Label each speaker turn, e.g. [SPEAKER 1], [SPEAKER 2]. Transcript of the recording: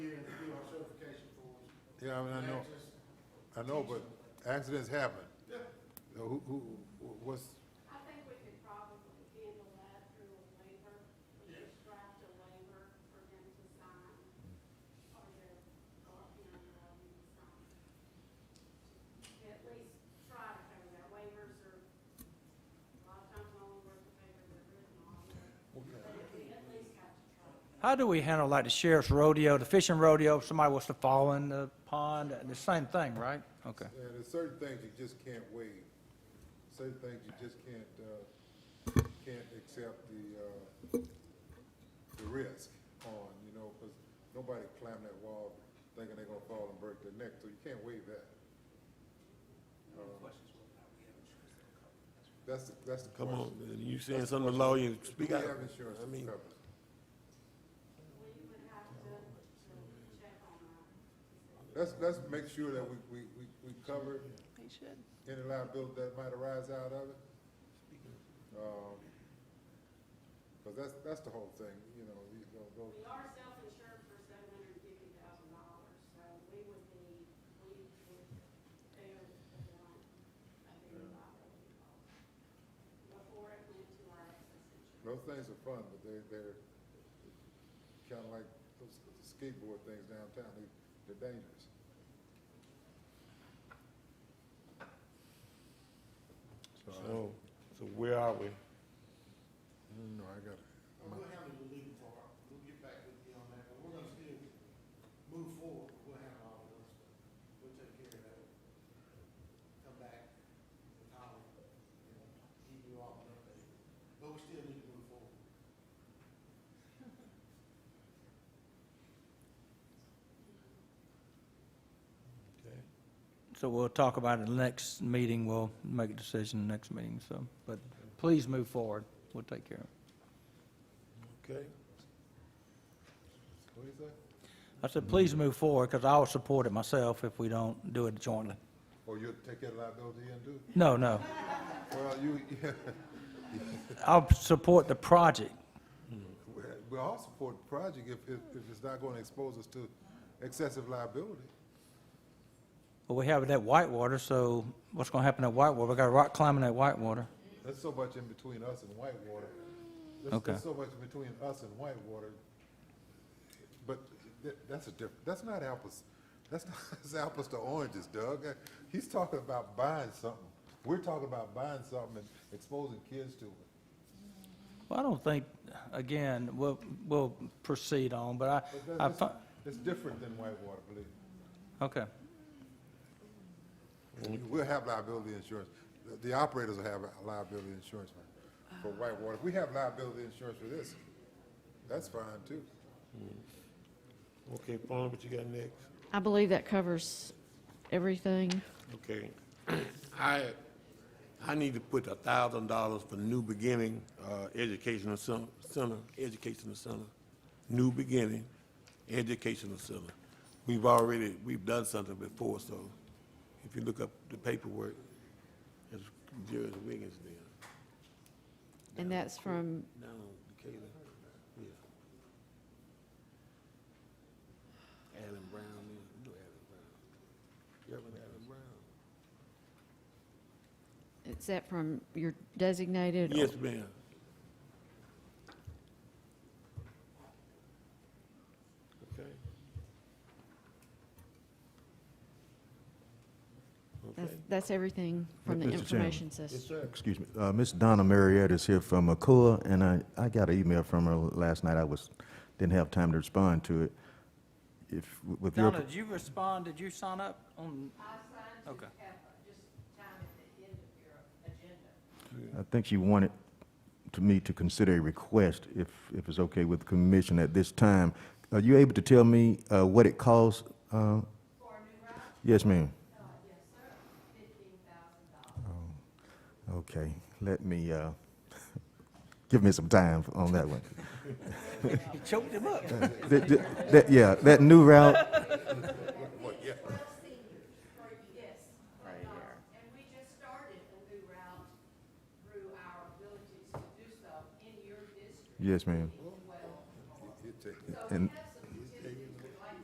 [SPEAKER 1] Yeah, I mean, I know, I know, but accidents happen. So Who, who, what's,
[SPEAKER 2] I think we could probably handle that through a waiver. We could draft a waiver for them to sign, or their, or, you know, their lawyer to sign. At least try to cover that. Waivers are, a lot of times only worth the paper they're written on. But if we at least have to try.
[SPEAKER 3] How do we handle like the sheriff's rodeo, the fishing rodeo, if somebody was to fall in the pond, the same thing, right? Okay.
[SPEAKER 1] yeah, there's certain things you just can't waive. Certain things you just can't, uh, can't accept the, uh, the risk on, you know, because nobody climbed that wall thinking they're gonna fall and break their neck, so you can't waive that. That's the, that's the
[SPEAKER 4] Come
[SPEAKER 1] question.
[SPEAKER 4] on, man, you saying something to law, you
[SPEAKER 1] Do
[SPEAKER 4] speak
[SPEAKER 1] we
[SPEAKER 4] out.
[SPEAKER 1] have insurance
[SPEAKER 4] I
[SPEAKER 1] to
[SPEAKER 4] mean,
[SPEAKER 1] cover? it?
[SPEAKER 2] We would have to, to check on that.
[SPEAKER 1] Let's, let's make sure that we, we, we, we cover
[SPEAKER 5] They should.
[SPEAKER 1] any liability that might arise out of it. Um, cause that's, that's the whole thing, you know, these, those- those,
[SPEAKER 2] We are self-insured for seven hundred and fifty thousand dollars, so we would be, we would bear the brunt of any liability costs before it went to our excess insurance.
[SPEAKER 1] those things are fun, but they're, they're kinda like those skateboard things downtown, they, they're dangerous. So, I
[SPEAKER 4] so, so where are we?
[SPEAKER 1] don't know, Mm, I gotta,
[SPEAKER 6] We'll handle the legal part, we'll get back with you on that, but we're gonna still move forward, we'll handle all of those, we'll take care of that. Come back, with Holly, you know, keep you all updated, but we still need to move forward.
[SPEAKER 3] So we'll talk about it in the next meeting. We'll make a decision in the next meeting, so, but please move forward. We'll take care of it.
[SPEAKER 4] Okay,
[SPEAKER 1] what do you say?
[SPEAKER 3] I said, please move forward, because I'll support it myself if we don't do it jointly.
[SPEAKER 1] Oh, you'll take that liability and do?
[SPEAKER 3] No, no.
[SPEAKER 1] Well, you, yeah,
[SPEAKER 3] I'll support the project.
[SPEAKER 1] we- we all support the project if, if, if it's not gonna expose us to excessive liability.
[SPEAKER 3] But we have it at Whitewater, so what's going to happen at Whitewater? We got rock climbing at Whitewater.
[SPEAKER 1] There's so much in between us and Whitewater. There's,
[SPEAKER 3] Okay.
[SPEAKER 1] there's so much in between us and Whitewater. But tha- that's a diff, that's not apples, that's not, that's apples to oranges, Doug. Uh, He's talking about buying something. We're talking about buying something and exposing kids to it.
[SPEAKER 3] Well, I don't think, again, we'll, we'll proceed on, but
[SPEAKER 1] But
[SPEAKER 3] I, I,
[SPEAKER 1] that's-
[SPEAKER 3] fi-
[SPEAKER 1] It's different than Whitewater, believe me.
[SPEAKER 3] okay.
[SPEAKER 1] We'll have liability insurance. The- The operators will have liability insurance for- for Whitewater. If we have liability insurance for this, that's fine too.
[SPEAKER 4] okay, Paul, what you got next?
[SPEAKER 5] I believe that covers everything.
[SPEAKER 4] Okay, I, I need to put a thousand dollars for New Beginning, uh, Educational Cen- Center, Educational Center, New Beginning Educational Center. We've already, we've done something before, so if you look up the paperwork, it's Jerry Wiggins there.
[SPEAKER 5] And that's from,
[SPEAKER 4] No, Decatur, yeah. Adam Brown, you know Adam Brown. Reverend Adam Brown.
[SPEAKER 5] is that from your designated?
[SPEAKER 4] Yes, ma'am. Okay.
[SPEAKER 5] That's, that's everything from the
[SPEAKER 7] Mr. Chairman.
[SPEAKER 5] information system.
[SPEAKER 7] Excuse me, uh, Ms. Donna Marietta is here from ACOA, and I, I got an email from her last night. I was, didn't have time to respond to it. If, with your,
[SPEAKER 3] Donna, did you respond? Did you sign up on?
[SPEAKER 2] I signed
[SPEAKER 3] Okay.
[SPEAKER 2] to have just time at the end of your agenda.
[SPEAKER 7] I think she wanted to me to consider a request, if, if it's okay with the commission at this time. Are you able to tell me, uh, what it costs? uh? Yes, ma'am.
[SPEAKER 2] Uh,
[SPEAKER 7] Oh, Okay, let me, uh, give me some time on that one.
[SPEAKER 3] You choked him up.
[SPEAKER 7] Th- th- that- yeah, that new route,
[SPEAKER 2] Yes. Right here. Uh, And we just started a new route through our abilities to do so in your district.
[SPEAKER 7] yes, ma'am.
[SPEAKER 2] Well,
[SPEAKER 1] You take it.
[SPEAKER 2] so we
[SPEAKER 7] And-
[SPEAKER 2] have